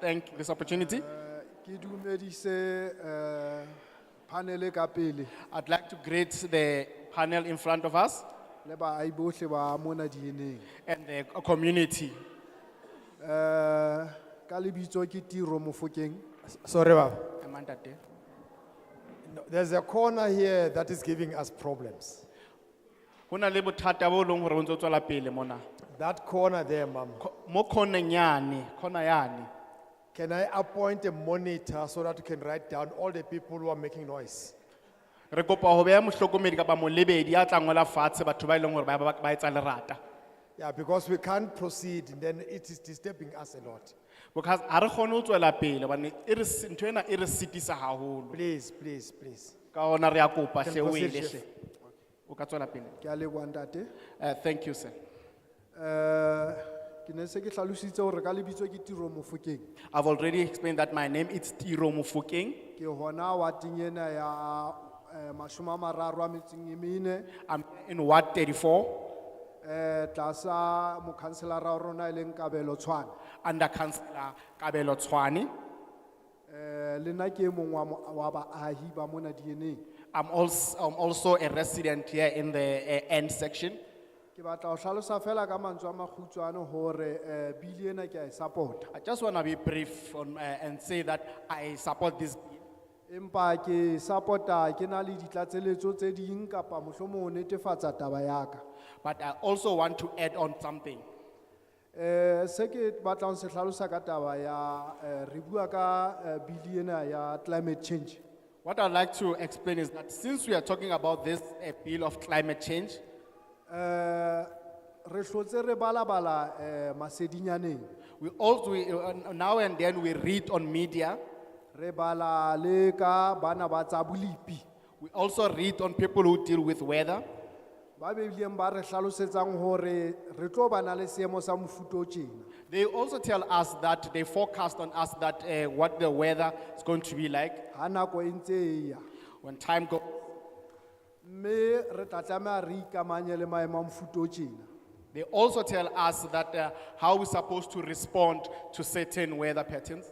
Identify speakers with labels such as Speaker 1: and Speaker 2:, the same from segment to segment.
Speaker 1: thank this opportunity.
Speaker 2: Ki dumedise eh panele kapele,
Speaker 1: I'd like to greet the panel in front of us
Speaker 2: le ba aibotle ba mona dieneng.
Speaker 1: and the community.
Speaker 2: Eh ka lebitso ke Tiro Mofokeng.
Speaker 3: Sorry, Baba.
Speaker 1: Amandate.
Speaker 3: No, There's a corner here that is giving us problems.
Speaker 1: Hona le bothata bo leng hore bo ntso tswela pele mona.
Speaker 3: That corner there, Mama.
Speaker 1: Co- Mo khoneng yane, khona yane.
Speaker 3: Can I appoint a monitor so that you can write down all the people who are making noise?
Speaker 1: Re kopa ho beha mohlokomedi kapa molebedi ya tla ngola fatshe batho ba eleng hore ba ba ba etsa lerata.
Speaker 3: Yeah, because we can't proceed, then it is disturbing us a lot.
Speaker 1: Because ha re kgone ho tswela pele hobane e re si- ntho ena e re sitisa haholo.
Speaker 3: Please, please, please.
Speaker 1: Ka hona re ya kopa hle
Speaker 3: Can
Speaker 1: o
Speaker 3: proceed,
Speaker 1: ele
Speaker 3: Chief.
Speaker 1: hle. O ka tswela pele.
Speaker 2: Ki alebo andate.
Speaker 1: Uh, thank you, sir.
Speaker 2: Eh ki ne se ki tlalusitse hore ka lebitso ke Tiro Mofokeng.
Speaker 1: I've already explained that my name is Tiro Mufokeng.
Speaker 2: Ki hona wating ena ya eh mashome a mararo a metso e mene.
Speaker 1: I'm in Ward thirty-four,
Speaker 2: Eh tlasa mokanselara wa rona e leng Kabelo Tshwane.
Speaker 1: under councillor Kabelo Twani.
Speaker 2: Eh le nna ke e mong wa mo- wa baahi ba mona dieneng.
Speaker 1: I'm also, I'm also a resident here in the uh, end section.
Speaker 2: Ki batla ho hlalosa fela ka mantswe a makgutshwane hore eh bili ena ke a e support.
Speaker 1: I just want to be brief on, uh, and say that I support this. bill.
Speaker 2: Empa ke supporta ke na le ditlatseletso tse ding kapa mohlomong ho netefatsa taba ya ka.
Speaker 1: But I also want to add on something.
Speaker 2: Eh se ke batla ho se hlalosa ka taba ya eh re bua ka eh, bili ena ya climate change.
Speaker 1: What I'd like to explain is that since we are talking about this uh, bill of climate change,
Speaker 2: Eh re hlotse re balabala eh masedinyaneng.
Speaker 1: we also, we, uh, now and then we read on media,
Speaker 2: Re bala le ka bana ba tsa bolipi.
Speaker 1: we also read on people who deal with weather.
Speaker 2: Ba bileng ba re hlalosetsang hore re tlo bana le seemo sa mofuta o tjena.
Speaker 1: They also tell us that they forecast on us that uh, what the weather is going to be like
Speaker 2: ha nako e ntse e ya
Speaker 1: when time goes.
Speaker 2: mme re tla tlameha re ikamanye le maemo a mofuta o tjena
Speaker 1: They also tell us that uh, how we're supposed to respond to certain weather patterns.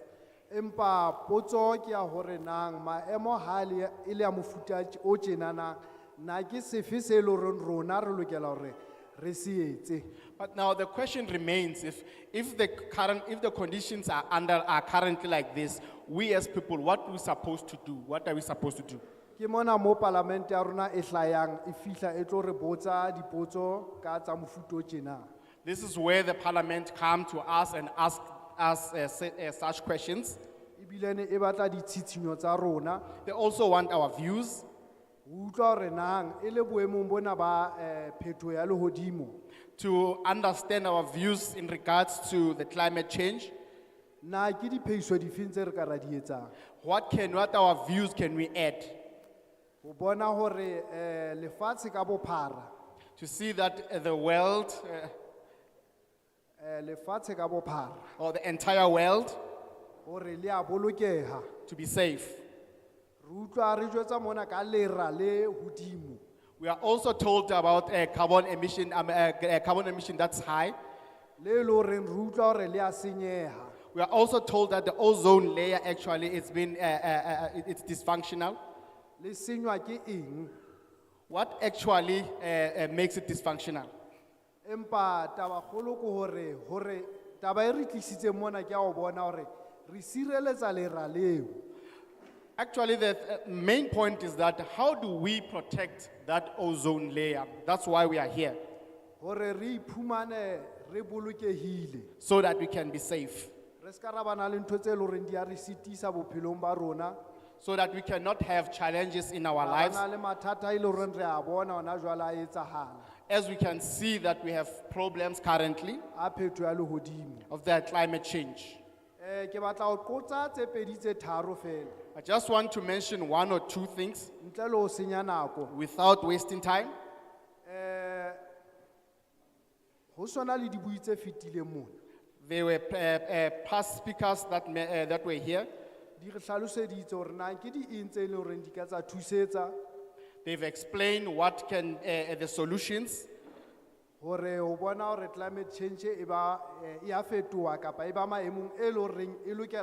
Speaker 2: empa potso ke ya hore nang maemo ha le- e le ya mofuta tj- o tjena na na ke sefe se e le horeng rona re lokela hore re se etse
Speaker 1: But now the question remains if, if, the current, if the conditions are, under, are currently like this, we as people, what are we supposed to do? What are we supposed to do?
Speaker 2: ke mona mo palamente ya rona e hlayang e fihla e tlo re botsa dipotso ka tsa mofuta o tjena
Speaker 1: This is where the parliament come to us and ask us uh, se- uh, such questions.
Speaker 2: ebile ne e batla ditshitshinyo tsa rona
Speaker 1: They also want our views.
Speaker 2: ho utlwa hore nang e le boemong bona ba um phetho ya lehodimo
Speaker 1: to understand our views in regards to the climate change.
Speaker 2: na ke diphehiso difeng tse re ka ra di etsang
Speaker 1: What can, what our views can we add
Speaker 2: ho bona hore eh lefatshe ka bophara
Speaker 1: to see that uh, the world uh,
Speaker 2: eh lefatshe ka bophara
Speaker 1: or the entire world
Speaker 2: hore le a bolokeha
Speaker 1: to be safe?
Speaker 2: re utlwa re jwetsa mona ka lera le hodimo
Speaker 1: We are also told about uh, carbon emission, um, uh, uh, carbon emission that's high.
Speaker 2: le le hore re utlwa hore le a senyeha
Speaker 1: We are also told that the ozone layer actually it's been uh, uh, uh, it- it's dysfunctional.
Speaker 2: le senywa ke eng
Speaker 1: What actually uh, uh, makes it dysfunctional?
Speaker 2: empa taba kgolo ke hore hore taba e re tlisitseng mona ke ya ho bona hore re sireletsa lera leo
Speaker 1: Actually, the uh, main point is that how do we protect that ozone layer? That's why we are here.
Speaker 2: hore re iphumane re bolokehile
Speaker 1: so that we can be safe,
Speaker 2: re ska ra bana le ntho tse leng hore di a re sitisa bophelong ba rona
Speaker 1: so that we cannot have challenges in our lives,
Speaker 2: Bana le mathata e leng hore re a bona ona jwale a etsahala
Speaker 1: as we can see that we have problems currently
Speaker 2: a phetho ya lehodimo
Speaker 1: of the climate change.
Speaker 2: Eh, ke batla ho qotsa tse pedi tse tharo fela
Speaker 1: I just want to mention one or two things
Speaker 2: ntle le ho senya nako
Speaker 1: without wasting time.
Speaker 2: ho swana le dibui tse fetileng mona
Speaker 1: There were uh, uh, past speakers that, ma- uh, that were here.
Speaker 2: di re hlaloseditse hore na ke di eng tse e leng horeng di ka tsa thusetsa
Speaker 1: They've explained what can uh, uh, the solutions
Speaker 2: hore ho bona hore climate change e ba eh, e a fetoha kapa e ba maemong e leng horeng e lokela